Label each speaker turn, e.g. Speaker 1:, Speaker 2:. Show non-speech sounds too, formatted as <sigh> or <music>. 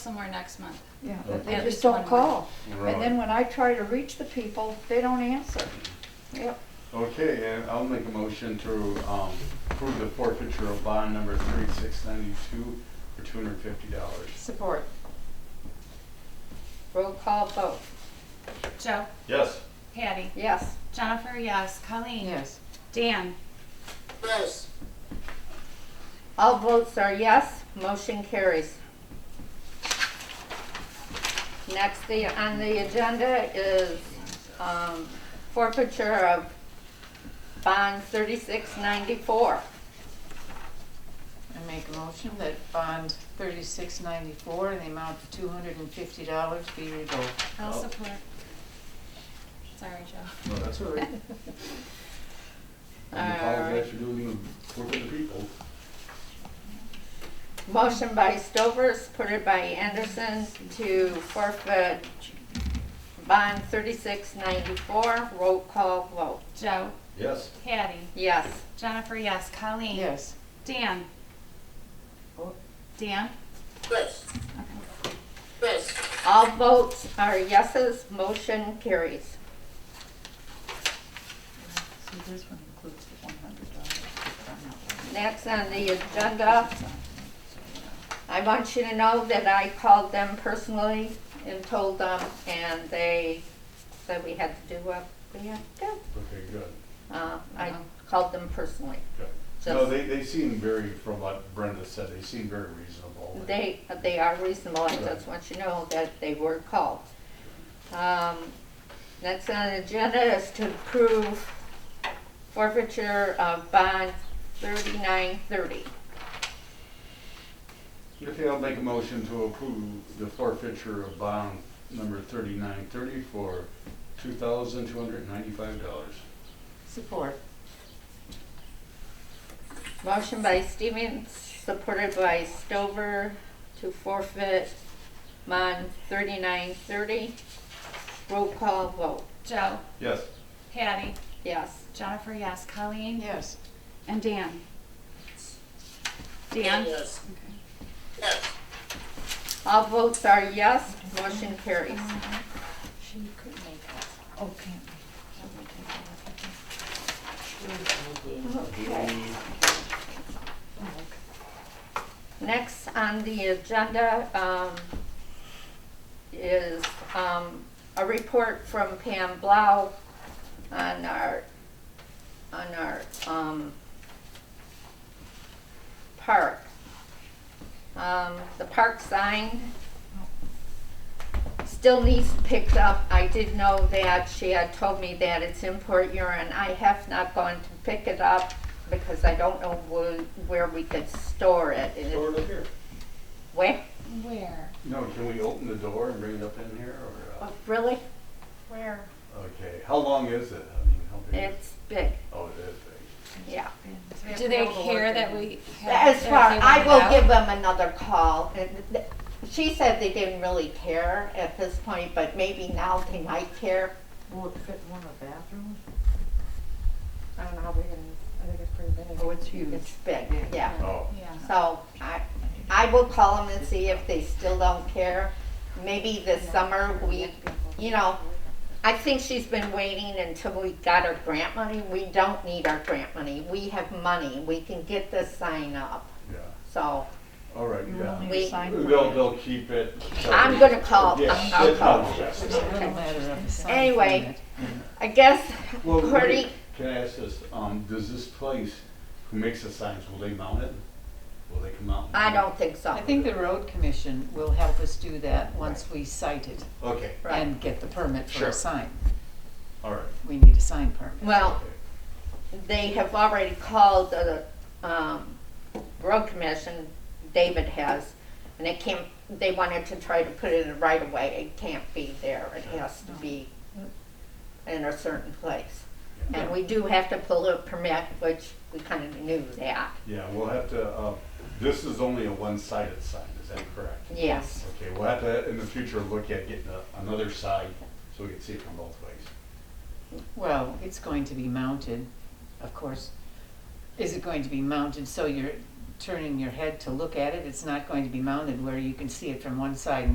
Speaker 1: somewhere next month.
Speaker 2: Yeah, but they
Speaker 1: At
Speaker 2: just
Speaker 1: least
Speaker 2: don't
Speaker 1: one more.
Speaker 2: call.
Speaker 3: Right.
Speaker 2: And then when I try to reach the people, they don't answer. Yep,
Speaker 3: Okay, and I'll make a motion to um, approve the forfeiture of bond number 3692 for $250.
Speaker 2: support. Roll call vote,
Speaker 1: Joe,
Speaker 3: Yes.
Speaker 1: Patty,
Speaker 2: yes.
Speaker 1: Jennifer, yes. Colleen? Dan?
Speaker 4: yes,
Speaker 2: All votes are yes, motion carries. Next the- on the agenda is um, forfeiture of bond 3694.
Speaker 5: I make a motion that bond thirty-six ninety-four in the amount of two hundred and fifty dollars be revoked.
Speaker 1: I'll
Speaker 3: Oh.
Speaker 1: support. Sorry, Joe.
Speaker 3: No, that's
Speaker 2: <laughs>
Speaker 3: all right.
Speaker 2: All right.
Speaker 3: Apologize for doing the work of the people.
Speaker 2: Motion by Stover, supported by Anderson to forfeit bond thirty-six ninety-four. Roll call vote.
Speaker 1: Joe,
Speaker 3: Yes.
Speaker 1: Patty,
Speaker 2: Yes.
Speaker 1: Jennifer, yes. Colleen?
Speaker 5: Yes,
Speaker 1: Dan?
Speaker 5: Oh.
Speaker 1: Dan?
Speaker 4: yes, yes,
Speaker 2: All votes are yeses. Motion carries.
Speaker 5: so this one includes the one hundred dollars.
Speaker 2: Next on the agenda, I want you to know that I called them personally and told them, and they said we had to do what we had to do.
Speaker 3: Okay, good,
Speaker 2: Uh, I called them personally.
Speaker 3: good. Uh-huh. No,
Speaker 2: Just,
Speaker 3: they, they seem very, from what Brenda said, they seem very reasonable.
Speaker 2: they, they are reasonable, I just want you to know that they were called. Um, next on the agenda is to approve forfeiture of bond thirty-nine thirty.
Speaker 3: Okay, I'll make a motion to approve the forfeiture of bond number 3930 for $2,295.
Speaker 5: Support.
Speaker 2: Motion by Stevens, supported by Stover, to forfeit bond thirty-nine thirty. Roll call vote,
Speaker 1: Joe,
Speaker 3: Yes.
Speaker 1: Patty,
Speaker 2: yes.
Speaker 1: Jennifer, yes. Colleen?
Speaker 5: Yes,
Speaker 1: And Dan? Dan?
Speaker 4: yes, yes.
Speaker 2: All votes are yes, motion carries.
Speaker 5: she could make it. Okay.
Speaker 2: Okay. Next on the agenda um, is um, a report from Pam Blau on our, on our um, park. Um, The park sign still needs picked up. I did know that. She had told me that it's in Port Huron. I have not gone to pick it up because I don't know wh- where we could store it. It is-
Speaker 3: Or look here.
Speaker 2: Where?
Speaker 1: Where?
Speaker 3: No, can we open the door and bring it up in here, or,
Speaker 2: Oh, Really? Where?
Speaker 3: uh, okay, how long is it? I mean, how big? is-
Speaker 2: It's big,
Speaker 3: Oh, it is big.
Speaker 2: yeah.
Speaker 1: Do they care that we have?
Speaker 2: As
Speaker 1: that
Speaker 2: far,
Speaker 1: they
Speaker 2: I
Speaker 1: want
Speaker 2: will
Speaker 1: it out?
Speaker 2: give them another call. And th- She said they didn't really care at this point, but maybe now they might care.
Speaker 6: Will it fit in one of the bathrooms? I don't know how big it is. I think it's pretty big.
Speaker 5: Oh, it's
Speaker 2: It's big, yeah.
Speaker 3: Oh,
Speaker 1: Yeah.
Speaker 2: So I, I will call them and see if they still don't care. Maybe this summer we, you know, I think she's been waiting until we got our grant money. We don't need our grant money. We have money. We can get this sign up,
Speaker 3: yeah,
Speaker 2: so.
Speaker 3: all right, yeah.
Speaker 2: We-
Speaker 3: They'll, they'll keep it.
Speaker 2: I'm gonna call.
Speaker 3: Yeah,
Speaker 2: I'm- I'll
Speaker 3: it's
Speaker 2: call.
Speaker 3: not just-
Speaker 2: Anyway. I guess,
Speaker 3: Well,
Speaker 2: Cory,
Speaker 3: wait, can I ask this, um, does this place, who makes the signs, will they mount it? Will they come out? and
Speaker 2: I
Speaker 3: mount
Speaker 2: don't think so.
Speaker 5: I think the road commission will help us do that once we cite it
Speaker 3: it? Okay,
Speaker 2: Right.
Speaker 5: and get the permit for
Speaker 3: Sure.
Speaker 5: a sign.
Speaker 3: all right.
Speaker 5: We need a sign permit.
Speaker 2: Well,
Speaker 3: okay.
Speaker 2: they have already called the, um, road commission, David has, and it can't, they wanted to try to put it in right away. It can't be there. It has to be in a certain place. And we do have to pull a permit, which we kind of knew that,
Speaker 3: Yeah, we'll have to, uh, this is only a one-sided sign, is that correct?
Speaker 2: yes.
Speaker 3: Okay, we'll have to, in the future, look at getting a- another side, so we can see it from both ways.
Speaker 5: Well, it's going to be mounted, of course. Is it going to be mounted so you're turning your head to look at it, it's not going to be mounted where you can see it from one side and